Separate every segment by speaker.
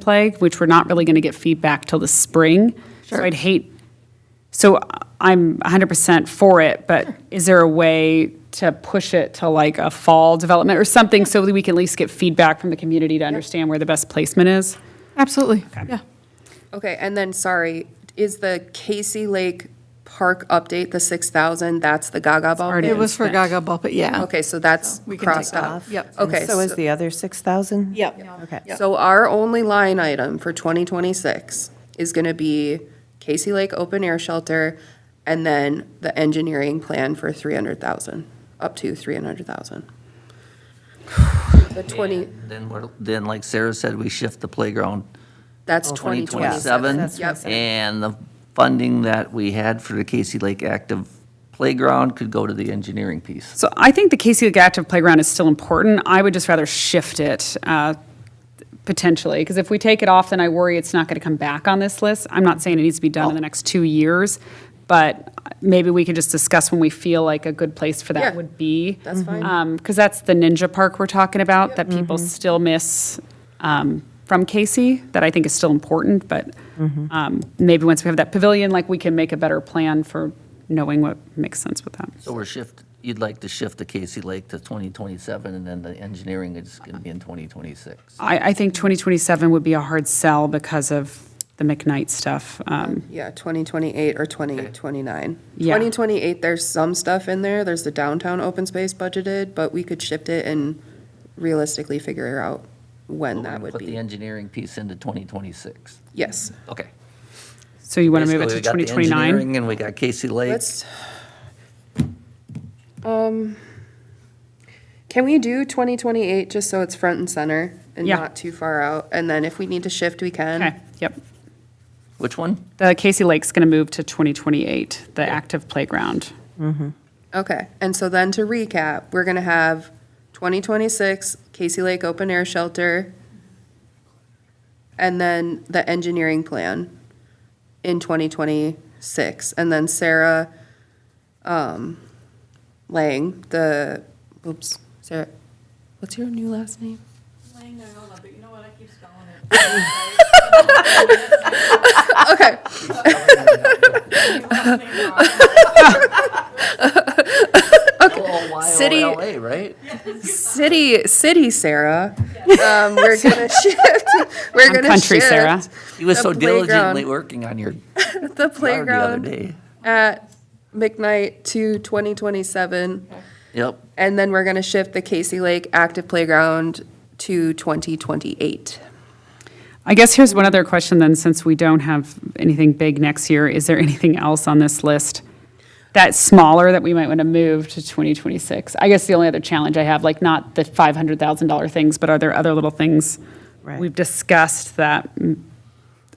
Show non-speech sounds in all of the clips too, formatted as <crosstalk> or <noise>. Speaker 1: plague, which we're not really going to get feedback till the spring. So I'd hate, so I'm 100% for it, but is there a way to push it to like a fall development or something so that we can at least get feedback from the community to understand where the best placement is?
Speaker 2: Absolutely, yeah.
Speaker 3: Okay, and then, sorry, is the Casey Lake Park update, the 6,000, that's the Gaga ball?
Speaker 1: already-
Speaker 2: It was for Gaga Bumpet, yeah.
Speaker 3: Okay, so that's
Speaker 2: We can take
Speaker 3: crossed
Speaker 2: that
Speaker 3: out.
Speaker 2: off. Yep.
Speaker 3: Okay.
Speaker 4: So is the other 6,000?
Speaker 2: Yep.
Speaker 4: Okay.
Speaker 3: So our only line item for 2026 is going to be Casey Lake Open Air Shelter and then the engineering plan for 300,000, up to 300,000. <sighs> The 20,
Speaker 5: Then we're, then like Sarah said, we shift the playground
Speaker 3: that's
Speaker 5: to 2027.
Speaker 3: 2027. Yep,
Speaker 5: And the funding that we had for the Casey Lake Active Playground could go to the engineering piece.
Speaker 1: So I think the Casey Lake Active Playground is still important. I would just rather shift it uh, potentially, because if we take it off, then I worry it's not going to come back on this list. I'm not saying it needs to be done in
Speaker 3: Oh.
Speaker 1: the next two years, but maybe we could just discuss when we feel like a good place for that
Speaker 3: Yeah,
Speaker 1: would be.
Speaker 3: that's fine.
Speaker 1: Because that's the Ninja Park we're talking about, that people still miss um, from Casey, that I think is still important, but um, maybe once we have that pavilion, like, we can make a better plan for knowing what makes sense with that.
Speaker 5: So we're shift, you'd like to shift the Casey Lake to 2027 and then the engineering is going to be in 2026.
Speaker 1: I, I think 2027 would be a hard sell because of the McKnight stuff. Um,
Speaker 3: Yeah, 2028 or 2029.
Speaker 1: Yeah.
Speaker 3: 2028, there's some stuff in there, there's the downtown open space budgeted, but we could shift it and realistically figure out when that would
Speaker 5: Put the
Speaker 3: be.
Speaker 5: engineering piece into 2026.
Speaker 3: Yes.
Speaker 5: Okay.
Speaker 1: So you want to move it to
Speaker 5: Basically, we got the
Speaker 1: 2029?
Speaker 5: engineering And we got Casey Lake.
Speaker 3: Let's, um, can we do 2028 just so it's front and center and
Speaker 1: Yeah.
Speaker 3: not too far out? And then if we need to shift, we
Speaker 1: Okay,
Speaker 3: can.
Speaker 1: yep.
Speaker 5: Which one?
Speaker 1: The Casey Lake's going to move to 2028, the active playground.
Speaker 3: Okay. And so then to recap, we're going to have 2026 Casey Lake Open Air Shelter and then the engineering plan in 2026. And then Sarah um, Lang, the, oops, Sarah, what's your new last name?
Speaker 6: Lang Noyola, but you know what? I keep spelling
Speaker 3: Ah,
Speaker 6: it.
Speaker 3: Okay. City-
Speaker 5: LA, right?
Speaker 3: City, city Sarah. Um, we're gonna shift, we're
Speaker 1: I'm
Speaker 3: gonna shift.
Speaker 1: country Sarah.
Speaker 5: He was
Speaker 3: The
Speaker 5: so diligently
Speaker 3: playground.
Speaker 5: working on your
Speaker 3: The
Speaker 5: yard the other
Speaker 3: playground
Speaker 5: day.
Speaker 3: at McKnight to twenty twenty-seven.
Speaker 5: Yep.
Speaker 3: And then we're gonna shift the Casey Lake active playground to twenty twenty-eight.
Speaker 1: I guess here's one other question then, since we don't have anything big next year, is there anything else on this list that's smaller that we might want to move to 2026? I guess the only other challenge I have, like not the $500,000 things, but are there other little things
Speaker 4: Right.
Speaker 1: we've discussed that, mm,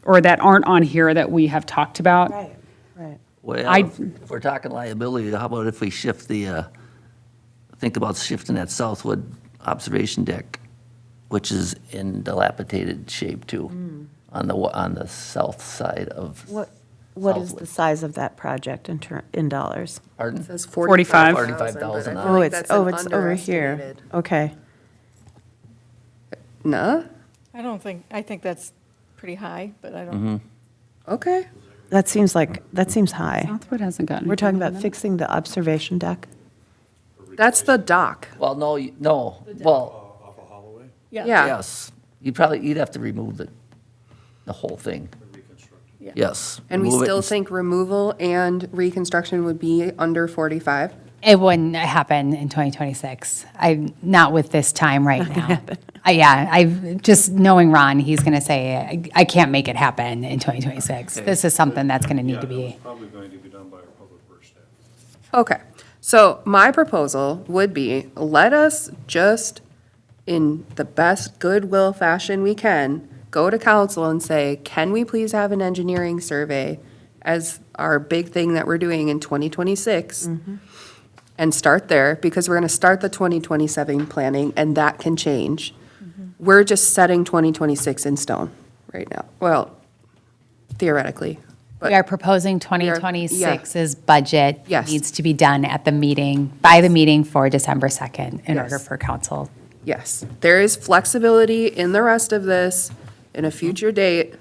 Speaker 1: or that aren't on here that we have talked about?
Speaker 4: Right, right.
Speaker 5: Well,
Speaker 1: I-
Speaker 5: if if we're talking liability, how about if we shift the, uh, think about shifting that Southwood observation deck, which is in dilapidated shape
Speaker 3: Hmm.
Speaker 5: too, on the, wa- on the south side of.
Speaker 4: What, what is the
Speaker 5: Southwood.
Speaker 4: size of that project in ter, in dollars?
Speaker 5: Pardon?
Speaker 3: Says
Speaker 1: 45.
Speaker 5: 45,000, I
Speaker 4: Oh, it's, oh, it's over here. Okay.
Speaker 3: Nah,
Speaker 6: I don't think, I think that's pretty high, but I don't,
Speaker 3: okay.
Speaker 4: That seems like, that seems high.
Speaker 1: Northwood hasn't gotten.
Speaker 4: We're talking about fixing the observation deck?
Speaker 3: That's the dock.
Speaker 5: Well, no, you- no, well,
Speaker 3: Yeah,
Speaker 5: yes, you probably, you'd have to remove the, the whole thing. Yes.
Speaker 3: and we
Speaker 5: remove it
Speaker 3: still
Speaker 5: and s-
Speaker 3: think removal and reconstruction would be under forty-five.
Speaker 7: It wouldn't happen in 2026. I'm not with this time right now. Uh, Yeah, I, just knowing Ron, he's going to say, "I- I can't make it happen in 2026. This is something that's going to need to be.
Speaker 8: Probably going to be done by our public works staff.
Speaker 3: Okay, so my proposal would be, let us just, in the best goodwill fashion we can, go to council and say, can we please have an engineering survey as our big thing that we're doing in 2026? And start there, because we're going to start the 2027 planning, and that can change. We're just setting 2026 in stone right now. Well, theoretically,
Speaker 7: We
Speaker 3: but,
Speaker 7: are proposing 2026's budget.
Speaker 3: Yes.
Speaker 7: Needs to be done at the meeting, by the meeting for December 2nd in order
Speaker 3: Yes.
Speaker 7: for council
Speaker 3: yes, there is flexibility in the rest of this, in a future date